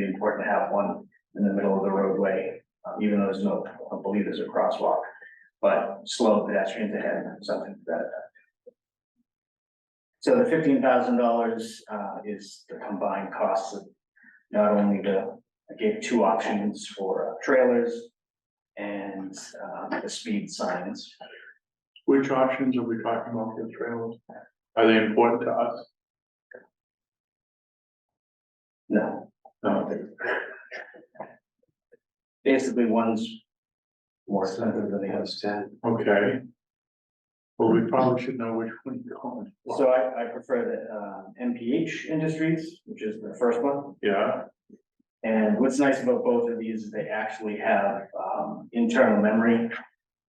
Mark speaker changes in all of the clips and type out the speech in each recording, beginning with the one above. Speaker 1: important to have one in the middle of the roadway, um, even though there's no, I don't believe there's a crosswalk. But slow pedestrians ahead, something to that effect. So the fifteen thousand dollars, uh, is the combined costs of not only the, I gave two options for uh, trailers and, um, the speed signs.
Speaker 2: Which options are we talking about for the trailers? Are they important to us?
Speaker 1: No,
Speaker 2: No.
Speaker 1: basically one's more expensive than the other.
Speaker 2: Okay. Well, we probably should know which one you're going. for.
Speaker 1: So I, I prefer the, um, MPH Industries, which is the first one.
Speaker 2: Yeah,
Speaker 1: And what's nice about both of these is they actually have, um, internal memory.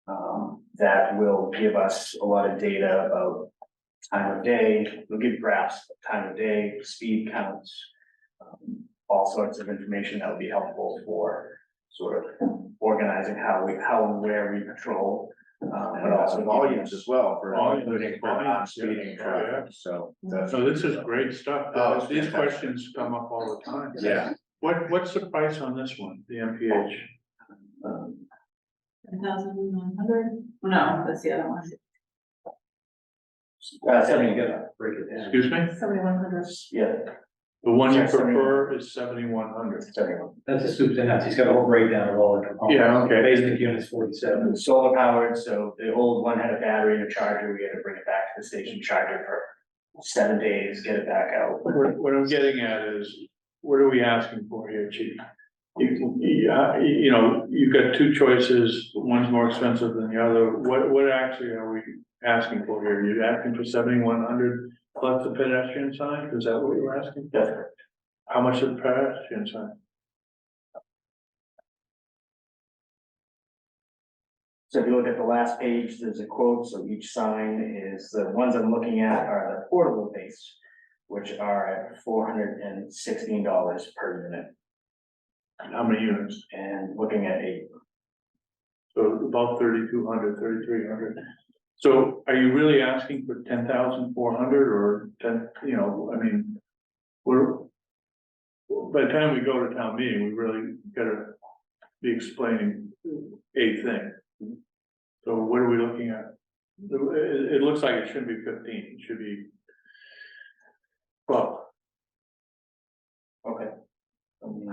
Speaker 1: Um, that will give us a lot of data about time of day, it'll give graphs, of time of day, speed counts. um, All sorts of information that would be helpful for sort of organizing how we, how and where we patrol. Um, but also volumes as
Speaker 3: well for.
Speaker 2: Volumes, volumes, yeah.
Speaker 3: so.
Speaker 2: so this is great
Speaker 3: Oh,
Speaker 2: stuff.
Speaker 3: it's
Speaker 2: These
Speaker 3: fantastic.
Speaker 2: questions come up all the time.
Speaker 3: Yeah,
Speaker 2: What, what's the price on this one, the MPH?
Speaker 1: um,
Speaker 4: One thousand one hundred? No, that's the other one.
Speaker 1: Uh, seventy, yeah, break it down.
Speaker 2: Excuse me?
Speaker 4: Seventy-one hundred.
Speaker 1: Yeah,
Speaker 2: The one you
Speaker 1: Sorry, sorry.
Speaker 2: prefer is seventy-one hundred.
Speaker 1: seventy-one.
Speaker 5: That's a soup to nuts, he's got a whole breakdown of all the components.
Speaker 2: Yeah, okay.
Speaker 5: Basic units forty-seven.
Speaker 1: Solar powered, so the old one had a battery and a charger, we had to bring it back to the station, charge it for seven days, get it back out.
Speaker 2: What, what I'm getting at is, what are we asking for here, chief? You, you, uh, you know, you've got two choices, one's more expensive than the other, what, what actually are we asking for here? You're asking for seventy-one hundred plus the pedestrian sign, is that what you're asking?
Speaker 1: That's correct.
Speaker 2: How much is the pedestrian sign?
Speaker 1: So if you look at the last page, there's a quote, so each sign is, the ones I'm looking at are the portable base, which are at four hundred and sixteen dollars per unit,
Speaker 2: And How many units?
Speaker 1: and looking at eight.
Speaker 2: So about 3,200, 3,300. So are you really asking for ten thousand four hundred or ten, you know, I mean, we're. By the time we go to town meeting, we really gotta be explaining a thing. So what are we looking at? It, it- it looks like it shouldn't be fifteen, it should be. Well,
Speaker 1: Okay.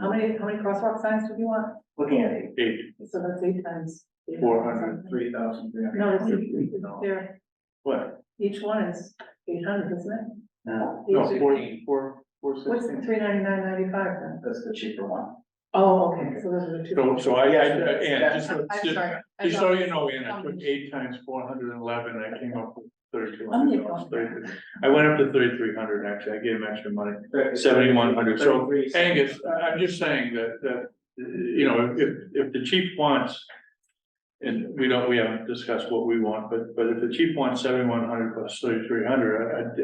Speaker 4: How many, how many crosswalk signs do you want?
Speaker 1: Looking at eight,
Speaker 2: eight,
Speaker 4: So that's eight times.
Speaker 2: four hundred, three thousand, three
Speaker 4: No,
Speaker 2: hundred.
Speaker 4: it's, it's there,
Speaker 2: What?
Speaker 4: each one is eight hundred, isn't
Speaker 1: no,
Speaker 4: it?
Speaker 2: No,
Speaker 4: Each-
Speaker 2: four, four, four sixteen.
Speaker 4: What's the three ninety-nine ninety-five then?
Speaker 1: that's the cheaper one.
Speaker 4: Oh, okay, so those are the two.
Speaker 2: So, so I, I, and just,
Speaker 4: I'm
Speaker 2: just-
Speaker 4: sorry. I
Speaker 2: just so
Speaker 4: thought-
Speaker 2: you know, Ann, I took
Speaker 4: Um,
Speaker 2: eight times four hundred and eleven, I came up with thirty-two
Speaker 4: I'm
Speaker 2: hundred
Speaker 4: your
Speaker 2: dollars.
Speaker 4: phone.
Speaker 2: 32. I went up to thirty-three hundred, actually, I gave him extra money. 7,100, so Angus, I- I'm just saying that, that, you know, if, if the chief wants, and we don't, we haven't discussed what we want, but, but if the chief wants seventy-one hundred plus thirty-three hundred,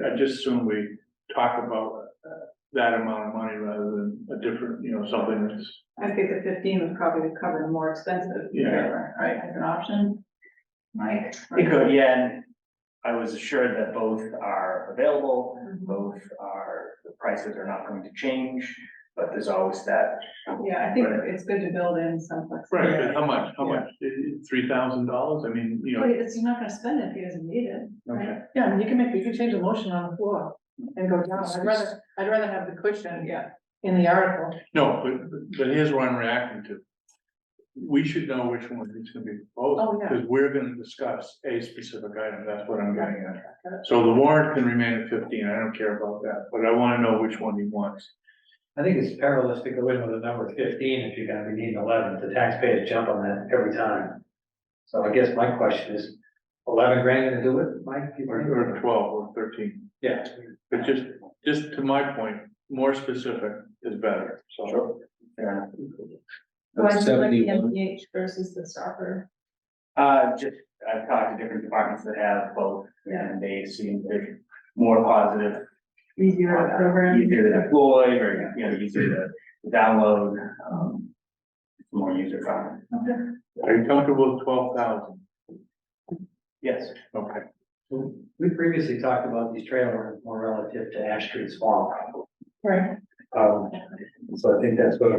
Speaker 2: I, I, I just assume we talk about uh, that amount of money rather than a different, you know, something that's
Speaker 6: I think the fifteen would probably cover the more expensive
Speaker 2: Yeah.
Speaker 6: trailer, right, as an option. Mike?
Speaker 1: It could, yeah, and I was assured that both are available,
Speaker 6: Mhm.
Speaker 1: both are, the prices are not going to change, but there's always that.
Speaker 6: Yeah, I think it's good to build in some
Speaker 2: Right,
Speaker 6: flexibility.
Speaker 2: but how much, how much, three thousand dollars, I mean, you
Speaker 6: But
Speaker 2: know,
Speaker 6: it's, you're not gonna spend it if he doesn't need it.
Speaker 2: okay,
Speaker 4: Yeah, I mean, you can make, you can change the motion on the floor and go down. I'd rather, I'd rather have the cushion
Speaker 6: Yeah.
Speaker 4: in the article.
Speaker 2: no, but, but here's what I'm reacting to. We should know which one is gonna be
Speaker 4: Oh,
Speaker 2: proposed,
Speaker 4: yeah.
Speaker 2: because we're gonna discuss a specific item, that's what I'm getting at. So the warrant can remain at fifteen, I don't care about that, but I wanna know which one he wants.
Speaker 5: I think it's perilous to go in with a number of fifteen if you're gonna be needing eleven, the taxpayers jump on that every time. So I guess my question is, eleven grand gonna do it, Mike? You
Speaker 2: Or,
Speaker 5: think?
Speaker 2: or twelve or thirteen,
Speaker 5: Yeah.
Speaker 2: but just, just to my point, more specific is better, so.
Speaker 1: Sure. Fair enough.
Speaker 6: Why do you like the MPH versus the stopper?
Speaker 1: Uh, just, I've talked to different departments that have both, and they seem they're more positive.
Speaker 6: Easier
Speaker 1: uh,
Speaker 6: program?
Speaker 1: Easier to deploy, or, you know, easier to download, um, it's more user friendly.
Speaker 6: Okay.
Speaker 2: Are you comfortable with twelve thousand?
Speaker 1: Yes,
Speaker 2: Okay.
Speaker 5: We previously talked about these trailers more relative to Ash Street Swamp.
Speaker 4: Right.
Speaker 5: Um, so I think that's what